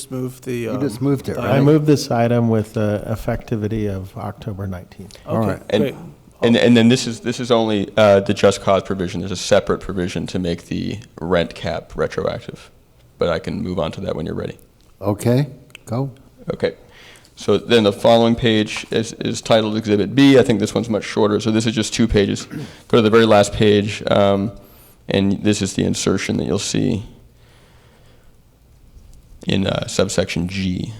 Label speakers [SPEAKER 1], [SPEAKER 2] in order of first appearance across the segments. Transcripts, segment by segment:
[SPEAKER 1] Just move the.
[SPEAKER 2] You
[SPEAKER 1] um,
[SPEAKER 2] just moved it,
[SPEAKER 1] the-
[SPEAKER 2] right?
[SPEAKER 3] I move this item with the effectivity of October 19th.
[SPEAKER 2] All right.
[SPEAKER 1] Okay, great.
[SPEAKER 4] And, and, and then this is, this is only uh, the just cause provision. There's a separate provision to make the rent cap retroactive. But I can move on to that when you're ready.
[SPEAKER 2] Okay, go.
[SPEAKER 4] Okay. So then the following page is, is titled Exhibit B. I think this one's much shorter, so this is just two pages. Go to the very last page, um, and this is the insertion that you'll see in uh, subsection G.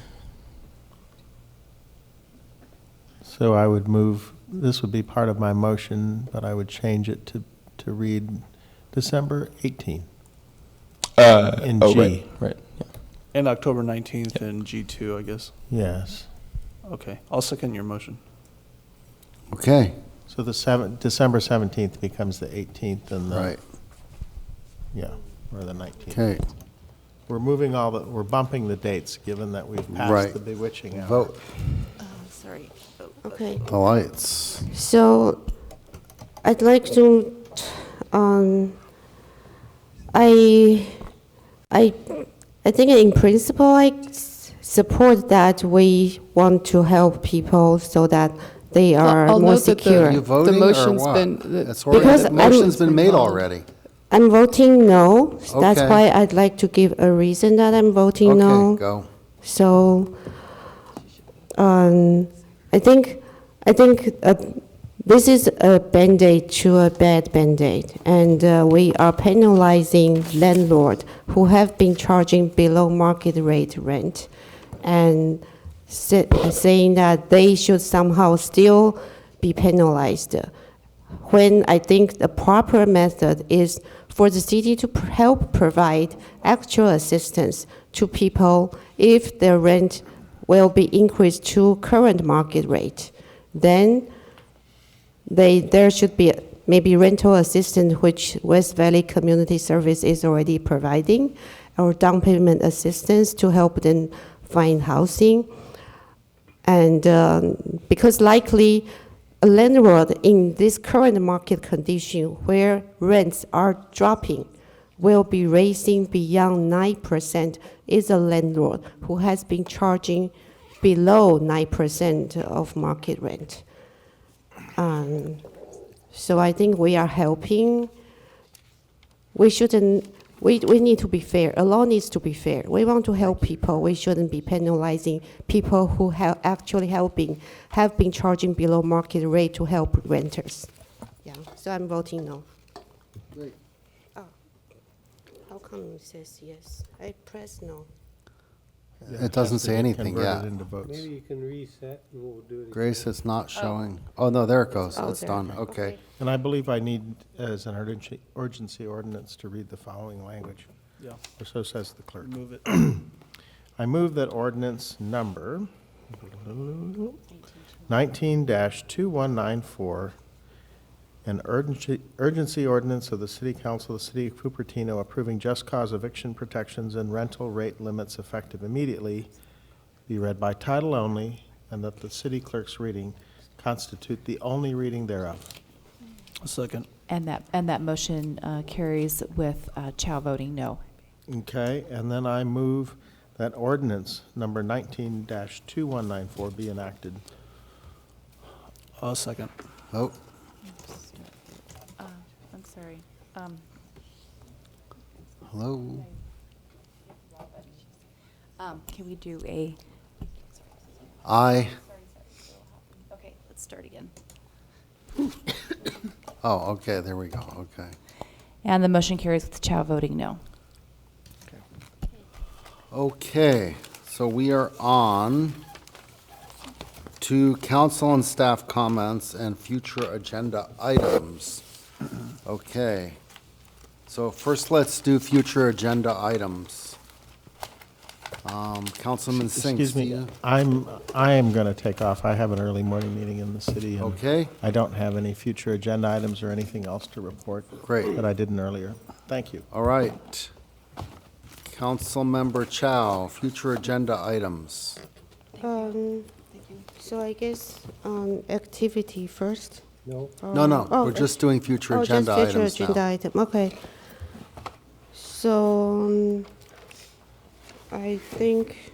[SPEAKER 3] So I would move, this would be part of my motion, but I would change it to, to read December 18th.
[SPEAKER 4] Uh,
[SPEAKER 3] In
[SPEAKER 4] oh,
[SPEAKER 3] G.
[SPEAKER 4] Right, right. yeah.
[SPEAKER 1] And October 19th and G2, I guess.
[SPEAKER 3] Yes.
[SPEAKER 1] Okay, I'll second your motion.
[SPEAKER 2] Okay,
[SPEAKER 3] So the 7th, December 17th becomes the 18th and the.
[SPEAKER 2] right,
[SPEAKER 3] Yeah, or the 19th.
[SPEAKER 2] okay.
[SPEAKER 3] We're moving all the, we're bumping the dates, given that we've
[SPEAKER 2] Right.
[SPEAKER 3] passed the bewitching hour.
[SPEAKER 2] Vote,
[SPEAKER 5] Sorry. Okay,
[SPEAKER 2] the lights.
[SPEAKER 5] so I'd like to, um, I, I, I think in principle, I s- support that we want to help people so that they are
[SPEAKER 6] I'll
[SPEAKER 5] more
[SPEAKER 6] note that the-
[SPEAKER 2] Are you
[SPEAKER 5] secure.
[SPEAKER 2] voting or
[SPEAKER 6] motion's been-
[SPEAKER 2] what?
[SPEAKER 6] the-
[SPEAKER 2] That's already-
[SPEAKER 5] Because
[SPEAKER 2] The
[SPEAKER 5] I'm-
[SPEAKER 2] motion's been made
[SPEAKER 6] It's been-
[SPEAKER 2] already.
[SPEAKER 5] I'm voting no. That's
[SPEAKER 2] Okay.
[SPEAKER 5] why I'd like to give a reason that I'm voting no.
[SPEAKER 2] Okay, go.
[SPEAKER 5] So, um, I think, I think uh, this is a Band-Aid to a bad Band-Aid, and uh, we are penalizing landlord who have been charging below market rate rent, and sa- saying that they should somehow still be penalized when I think the proper method is for the city to pr- help provide actual assistance to people if their rent will be increased to current market rate. Then they, there should be maybe rental assistance, which West Valley Community Service is already providing, or down payment assistance to help them find housing. And um, because likely a landlord in this current market condition where rents are dropping will be raising beyond 9% is a landlord who has been charging below 9% of market rent. Um, so I think we are helping. We shouldn't, we, we need to be fair. A law needs to be fair. We want to help people. We shouldn't be penalizing people who have actually helping, have been charging below market rate to help renters. Yeah, so I'm voting no. Oh, How come it says yes? I press no.
[SPEAKER 2] It doesn't say anything,
[SPEAKER 3] Converted
[SPEAKER 2] yeah.
[SPEAKER 3] into votes.
[SPEAKER 7] Maybe you can reset and we'll do it again.
[SPEAKER 2] Grace, it's not showing. Oh, no, there it goes.
[SPEAKER 5] Oh,
[SPEAKER 2] It's
[SPEAKER 5] there.
[SPEAKER 2] done, okay.
[SPEAKER 3] And I believe I need, as an urgency- urgency ordinance, to read the following language,
[SPEAKER 1] Yeah,
[SPEAKER 3] or so says the clerk.
[SPEAKER 1] move it.
[SPEAKER 3] I move that ordinance number 19-2194, an urgency urgency ordinance of the City Council of the City of Cupertino approving just cause eviction protections and rental rate limits effective immediately, be read by title only, and that the city clerk's reading constitute the only reading thereof.
[SPEAKER 1] Second.
[SPEAKER 8] And that, and that motion uh, carries with uh, Chow voting no.
[SPEAKER 3] Okay, and then I move that ordinance number 19-2194 be enacted.
[SPEAKER 1] I'll second.
[SPEAKER 2] Oh,
[SPEAKER 8] I'm sorry. um,
[SPEAKER 2] hello?
[SPEAKER 8] um, Can we do a,
[SPEAKER 2] I,
[SPEAKER 8] okay, let's start again.
[SPEAKER 2] oh, okay, there we go, okay.
[SPEAKER 8] And the motion carries with Chow voting no.
[SPEAKER 2] Okay, so we are on to council and staff comments and future agenda items. Okay, so first let's do future agenda items. Um, Councilman Sinks. uh,
[SPEAKER 3] Excuse
[SPEAKER 2] do
[SPEAKER 3] me,
[SPEAKER 2] you-
[SPEAKER 3] I'm, I am going to take off. I have an early morning meeting in the city. and
[SPEAKER 2] Okay.
[SPEAKER 3] I don't have any future agenda items or anything else to report.
[SPEAKER 2] Great.
[SPEAKER 3] That I didn't earlier. Thank you.
[SPEAKER 2] All right. Councilmember Chow, future agenda items.
[SPEAKER 5] Um, so I guess, um, activity first.
[SPEAKER 7] No?
[SPEAKER 2] No, no,
[SPEAKER 5] Oh,
[SPEAKER 2] we're just doing future
[SPEAKER 5] Oh,
[SPEAKER 2] agenda
[SPEAKER 5] just future
[SPEAKER 2] items now.
[SPEAKER 5] agenda item, okay. So, um, I think